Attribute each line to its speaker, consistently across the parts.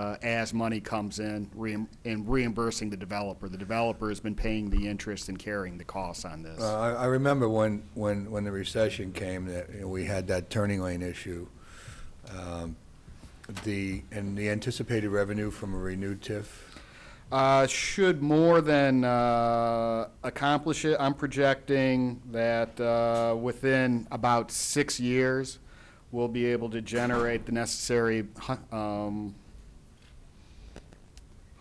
Speaker 1: uh, as money comes in reim- and reimbursing the developer. The developer has been paying the interest and carrying the costs on this.
Speaker 2: Uh, I I remember when, when, when the recession came, that you know, we had that turning lane issue. Um, The, and the anticipated revenue from a renewed TIF,
Speaker 1: Uh, should more than uh, accomplish it. I'm projecting that uh, within about six years, we'll be able to generate the necessary hu- um,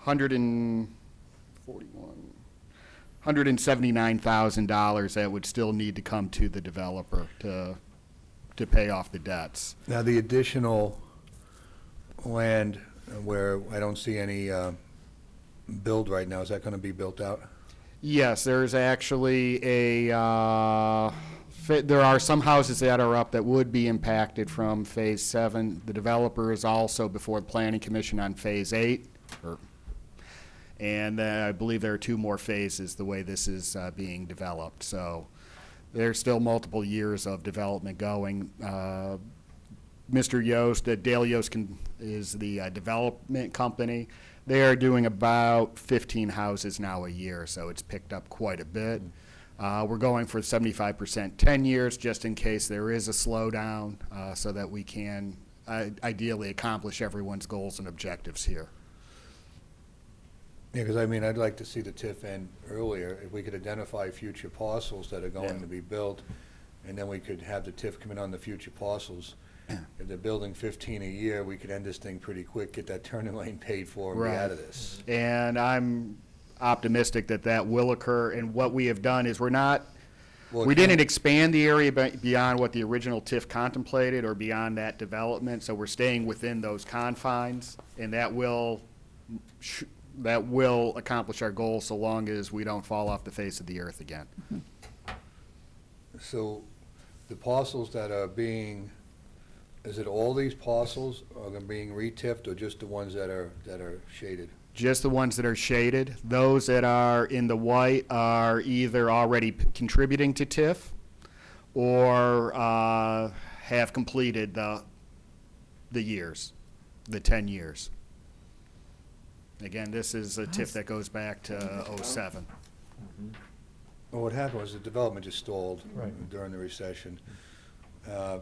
Speaker 1: 141, $179,000 that would still need to come to the developer to, to pay off the debts.
Speaker 2: now the additional land where I don't see any uh, build right now, is that going to be built out?
Speaker 1: Yes, there's actually a, uh, fa- there are some houses that are up that would be impacted from Phase 7. The developer is also before the Planning Commission on Phase 8. or- And uh, I believe there are two more phases, the way this is uh, being developed. So there's still multiple years of development going. Uh, Mr. Yost, uh, Dale Yost can- is the uh, development company. They are doing about 15 houses now a year, so it's picked up quite a bit. Uh, We're going for 75% 10 years, just in case there is a slowdown, uh, so that we can uh, ideally accomplish everyone's goals and objectives here.
Speaker 2: Yeah, because I mean, I'd like to see the TIF end earlier, if we could identify future parcels that are going
Speaker 1: Yeah.
Speaker 2: to be built, and then we could have the TIF come in on the future parcels. If they're building fifteen a year, we could end this thing pretty quick, get that turning lane paid for, and be
Speaker 1: Right.
Speaker 2: out of this.
Speaker 1: And I'm optimistic that that will occur, and what we have done is we're not
Speaker 2: Well,
Speaker 1: We
Speaker 2: it can-
Speaker 1: didn't expand the area be- beyond what the original TIF contemplated or beyond that development, so we're staying within those confines, and that will, sh- that will accomplish our goal so long as we don't fall off the face of the earth again.
Speaker 2: uh, So, the parcels that are being, is it all these parcels are gonna being re-tiffed, or just the ones that are, that are shaded?
Speaker 1: Just the ones that are shaded. Those that are in the white are either already p- contributing to TIF or uh, have completed the, the years, the 10 years. Again, this is a TIF that goes back to '07.
Speaker 2: Well, what happened was the development just stalled
Speaker 3: Right.
Speaker 2: during the recession. Uh,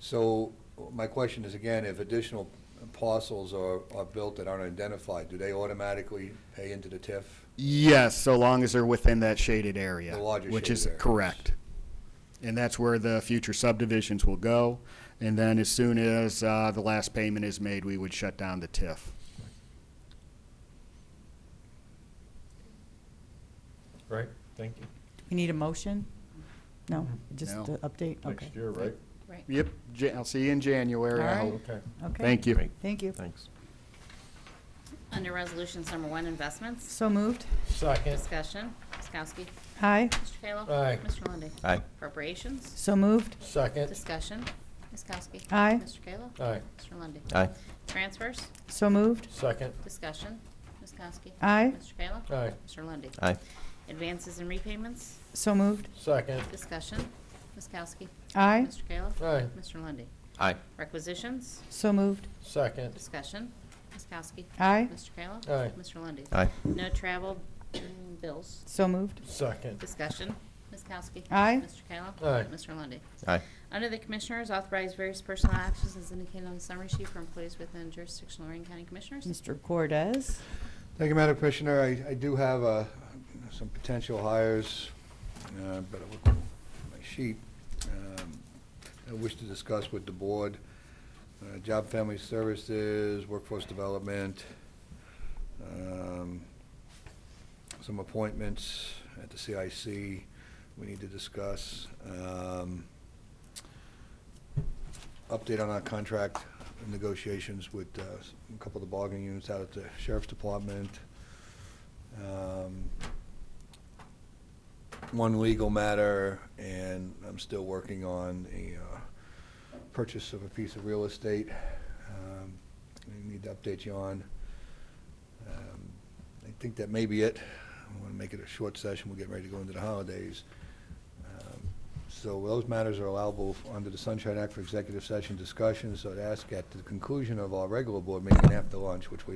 Speaker 2: So my question is again, if additional parcels are, are built that aren't identified, do they automatically pay into the TIF?
Speaker 1: Yes, so long as they're within that shaded area.
Speaker 2: The larger
Speaker 1: Which
Speaker 2: shaded
Speaker 1: is
Speaker 2: areas.
Speaker 1: correct. And that's where the future subdivisions will go. And then as soon as uh, the last payment is made, we would shut down the TIF.
Speaker 3: Right, thank you.
Speaker 4: We need a motion? No, just
Speaker 1: Mm-hmm. No.
Speaker 4: an update? Okay.
Speaker 3: Next year, right? Oh,
Speaker 1: Yep, Ja- I'll see you in January, I
Speaker 4: All
Speaker 1: hope.
Speaker 4: right.
Speaker 3: Okay,
Speaker 4: Okay.
Speaker 1: Thank you.
Speaker 4: Thank you.
Speaker 3: thanks.
Speaker 5: Under Resolutions Number One, Investments,
Speaker 4: So moved.
Speaker 3: Second,
Speaker 5: Discussion, Ms. Kowski,
Speaker 4: Aye.
Speaker 5: Mr. Kayla.
Speaker 3: Aye.
Speaker 5: Mr. Lundey.
Speaker 6: Aye.
Speaker 5: Appropriations,
Speaker 4: So moved.
Speaker 3: second,
Speaker 5: Discussion, Ms. Kowski.
Speaker 4: Aye.
Speaker 5: Mr. Kayla.
Speaker 3: Aye.
Speaker 5: Mr. Lundey.
Speaker 6: Aye.
Speaker 5: Transfers,
Speaker 4: So moved.
Speaker 3: second,
Speaker 5: Discussion, Ms. Kowski.
Speaker 4: Aye.
Speaker 5: Mr. Kayla.
Speaker 3: Aye.
Speaker 5: Mr. Lundey.
Speaker 6: Aye.
Speaker 5: Advances and repayments,
Speaker 4: So moved.
Speaker 3: second,
Speaker 5: Discussion, Ms. Kowski.
Speaker 4: Aye.
Speaker 5: Mr. Kayla.
Speaker 3: Aye.
Speaker 5: Mr. Lundey.
Speaker 6: Aye.
Speaker 5: Requisitions,
Speaker 4: So moved.
Speaker 3: second,
Speaker 5: Discussion, Ms. Kowski.
Speaker 4: Aye.
Speaker 5: Mr. Kayla.
Speaker 3: Aye.
Speaker 5: Mr. Lundey.
Speaker 6: Aye.
Speaker 5: No travel mm, bills,
Speaker 4: So moved.
Speaker 3: second,
Speaker 5: Discussion, Ms. Kowski.
Speaker 4: Aye.
Speaker 5: Mr. Kayla.
Speaker 3: Aye.
Speaker 5: Mr. Lundey.
Speaker 6: Aye.
Speaker 5: Under the Commissioners, authorize various personal actions as indicated on the summary sheet for employees within jurisdiction of Lorraine County Commissioners.
Speaker 4: Mr. Cordez?
Speaker 2: Thank you, Madam Commissioner. I, I do have, uh, some potential hires, uh, but I look at my sheet, um, I wish to discuss with the board. Uh, Job Family Services, Workforce Development, um, some appointments at the CIC we need to discuss. Um, Update on our contract negotiations with uh, a couple of the bargaining units out at the Sheriff's Department. Um, One legal matter, and I'm still working on a uh, purchase of a piece of real estate. um, I need to update you on. Um, I think that may be it. I want to make it a short session. We're getting ready to go into the holidays. Um, So those matters are allowable under the Sunshine Act for executive session discussions. So I'd ask at the conclusion of our regular board meeting after lunch, which we